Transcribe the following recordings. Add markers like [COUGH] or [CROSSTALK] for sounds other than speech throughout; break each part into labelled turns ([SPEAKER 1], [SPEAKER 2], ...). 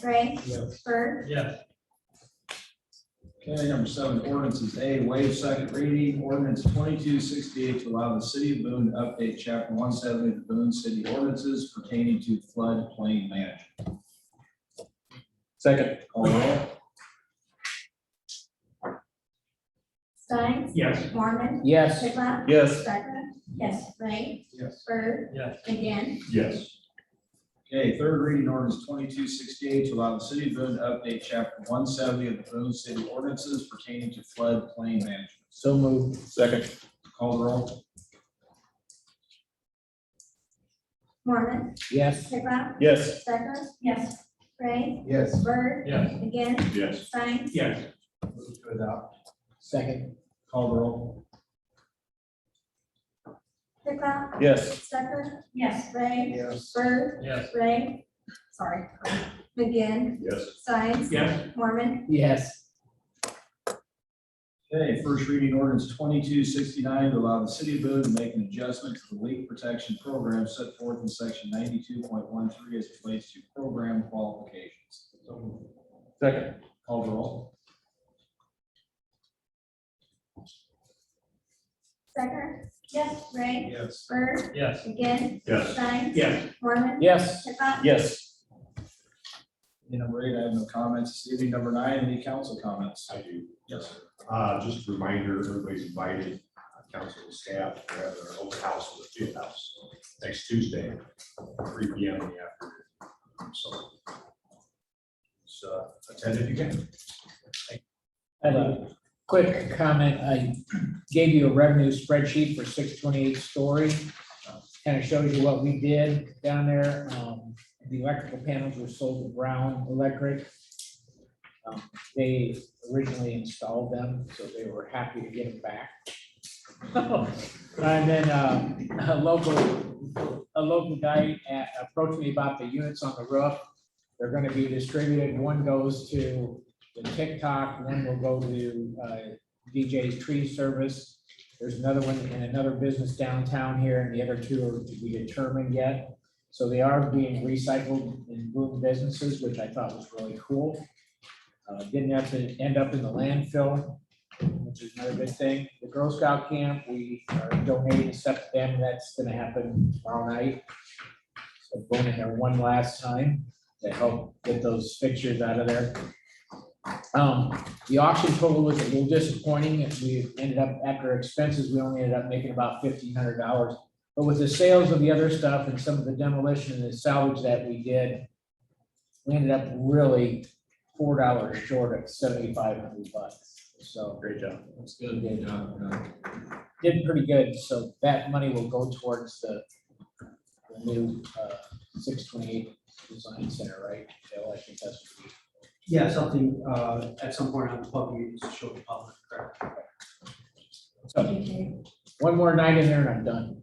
[SPEAKER 1] Gray,
[SPEAKER 2] Yes.
[SPEAKER 1] Bird,
[SPEAKER 2] Yes.
[SPEAKER 3] Okay, number seven, ordinances. A, waive second reading, ordinance twenty-two sixty-eight to allow the city of Boone to update chapter one seventy of the Boone City ordinances pertaining to floodplain management.
[SPEAKER 4] Second.
[SPEAKER 3] Call roll.
[SPEAKER 1] Stein,
[SPEAKER 2] Yes.
[SPEAKER 1] Mormon,
[SPEAKER 4] Yes.
[SPEAKER 1] Tripla,
[SPEAKER 4] Yes.
[SPEAKER 1] Stucker, yes, Ray,
[SPEAKER 3] Yes.
[SPEAKER 1] Bird,
[SPEAKER 2] Yes.
[SPEAKER 1] again,
[SPEAKER 4] Yes.
[SPEAKER 3] Okay, third reading ordinance twenty-two sixty-eight to allow the city of Boone to update chapter one seventy of the Boone City ordinances pertaining to floodplain management.
[SPEAKER 4] So moved. Second.
[SPEAKER 3] Call roll.
[SPEAKER 1] Mormon,
[SPEAKER 4] Yes.
[SPEAKER 1] Tripla,
[SPEAKER 4] Yes.
[SPEAKER 1] Stucker, yes, Ray,
[SPEAKER 4] Yes.
[SPEAKER 1] Bird,
[SPEAKER 2] Yes.
[SPEAKER 1] again,
[SPEAKER 4] Yes.
[SPEAKER 1] Stein,
[SPEAKER 2] Yes.
[SPEAKER 3] Move to adopt.
[SPEAKER 4] Second.
[SPEAKER 3] Call roll.
[SPEAKER 1] Tripla,
[SPEAKER 4] Yes.
[SPEAKER 1] Stucker, yes, Ray,
[SPEAKER 4] Yes.
[SPEAKER 1] Bird,
[SPEAKER 2] Yes.
[SPEAKER 1] Ray, sorry, again,
[SPEAKER 4] Yes.
[SPEAKER 1] Stein,
[SPEAKER 2] Yes.
[SPEAKER 1] Mormon,
[SPEAKER 4] Yes.
[SPEAKER 3] Okay, first reading ordinance twenty-two sixty-nine to allow the city of Boone to make an adjustment to the leak protection program set forth in section ninety-two point one three as it relates to program qualifications.
[SPEAKER 4] Second.
[SPEAKER 3] Call roll.
[SPEAKER 1] Stucker, yes, Ray,
[SPEAKER 3] Yes.
[SPEAKER 1] Bird,
[SPEAKER 2] Yes.
[SPEAKER 1] again,
[SPEAKER 4] Yes.
[SPEAKER 1] Stein,
[SPEAKER 2] Yes.
[SPEAKER 1] Mormon,
[SPEAKER 4] Yes.
[SPEAKER 1] Tripla,
[SPEAKER 4] Yes.
[SPEAKER 3] Number eight, I have no comments. This evening, number nine, any council comments?
[SPEAKER 5] I do.
[SPEAKER 3] Yes, sir.
[SPEAKER 5] Uh, just a reminder, everybody's invited, uh, council and staff, we have our open house at the field house next Tuesday, three P M in the afternoon. So. So uh, attend if you can.
[SPEAKER 4] I have a quick comment. I gave you a revenue spreadsheet for six twenty-eight story. Kind of shows you what we did down there. Um, the electrical panels were sold to Brown Electric. Um, They originally installed them, so they were happy to get them back. [LAUGHS] And then, uh, a local, a local guy a- approached me about the units on the roof. They're gonna be distributed. One goes to the TikTok, one will go to uh, DJ's Tree Service. There's another one in another business downtown here, and the other two are to be determined yet. So they are being recycled in boom businesses, which I thought was really cool. Uh, Didn't have to end up in the landfill, which is another good thing. The Girl Scout camp, we are donating stuff to them. That's gonna happen tomorrow night. So going in there one last time to help get those fixtures out of there. Um, the auction total was a little disappointing, and we ended up, after expenses, we only ended up making about fifteen hundred dollars. But with the sales of the other stuff and some of the demolition and the salvage that we did, we ended up really four dollars short of seventy-five hundred bucks, so.
[SPEAKER 5] Great job.
[SPEAKER 3] That's good. Good job.
[SPEAKER 4] Did pretty good, so that money will go towards the the new, uh, six twenty-eight design center, right? Bill, I think that's what we-
[SPEAKER 6] Yeah, something, uh, at some point on the public, meeting to show the public, correct?
[SPEAKER 1] thank you.
[SPEAKER 4] One more night in there and I'm done.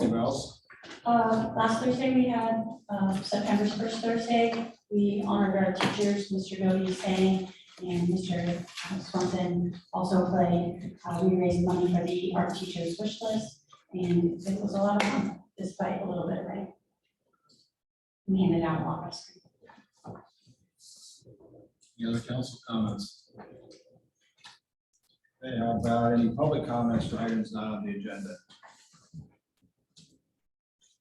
[SPEAKER 3] Anyone else?
[SPEAKER 7] Uh, Last Thursday, we had, uh, September's first Thursday, we honored our teachers, Mr. Doty sang, and Mr. Swanson also played. Uh, We raised money for the art teachers wish list, and it was a lot of fun, despite a little bit of rain. We handed out lots.
[SPEAKER 3] Any other council comments? Okay, how about any public comments for items not on the agenda?